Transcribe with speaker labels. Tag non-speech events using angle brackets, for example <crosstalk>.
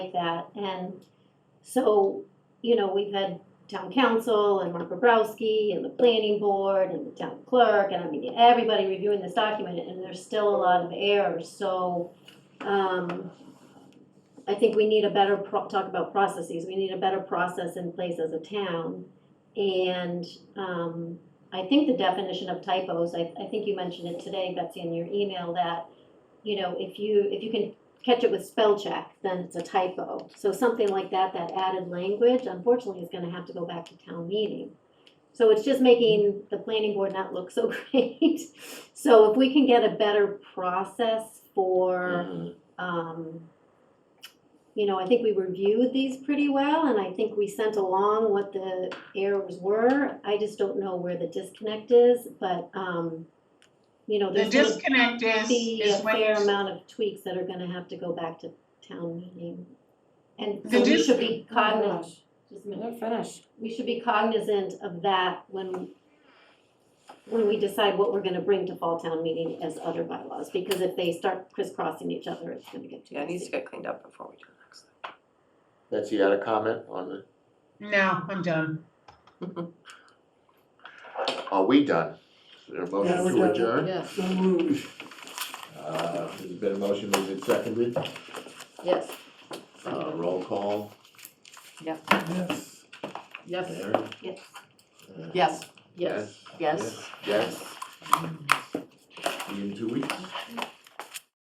Speaker 1: like that. And so, you know, we've had town council and Mark Bobrowski and the planning board and the town clerk, and I mean, everybody reviewing this document, and there's still a lot of errors, so, um, I think we need a better pro, talk about processes, we need a better process in place as a town. And, um, I think the definition of typos, I, I think you mentioned it today, Betsy, in your email, that, you know, if you, if you can catch it with spell check, then it's a typo. So something like that, that added language, unfortunately, is gonna have to go back to town meeting. So it's just making the planning board not look so <laughs> great. So if we can get a better process for,
Speaker 2: Mhm.
Speaker 1: um, you know, I think we reviewed these pretty well, and I think we sent along what the errors were. I just don't know where the disconnect is, but, um, you know,
Speaker 3: The
Speaker 1: there's gonna
Speaker 3: disconnect is,
Speaker 1: be a
Speaker 3: is when,
Speaker 1: fair
Speaker 3: you-
Speaker 1: amount of tweaks that are gonna have to go back to town meeting. And
Speaker 3: The Oh,
Speaker 1: so we
Speaker 3: dis-
Speaker 1: should be cognizant,
Speaker 4: Finish. Let her finish.
Speaker 1: we should be cognizant of that when, when we decide what we're gonna bring to fall town meeting as other bylaws, because if they start crisscrossing each other, it's gonna get too
Speaker 5: Yeah, it needs
Speaker 1: messy.
Speaker 5: to get cleaned up before we do the next.
Speaker 2: Betsy, you had a comment on the,
Speaker 3: no, I'm done.
Speaker 2: are we done? Is there a
Speaker 4: Yeah,
Speaker 2: motion
Speaker 4: we're
Speaker 2: to
Speaker 4: done.
Speaker 2: adjourn?
Speaker 4: Yes,
Speaker 6: So moved.
Speaker 2: Uh, there's been a motion made and seconded,
Speaker 4: yes,
Speaker 2: uh, roll call,
Speaker 6: Yes.
Speaker 4: yes,
Speaker 2: Aaron?
Speaker 1: Yes.
Speaker 2: Uh,
Speaker 5: Yes.
Speaker 4: yes, yes.
Speaker 2: Yes. Yes. See you in two weeks.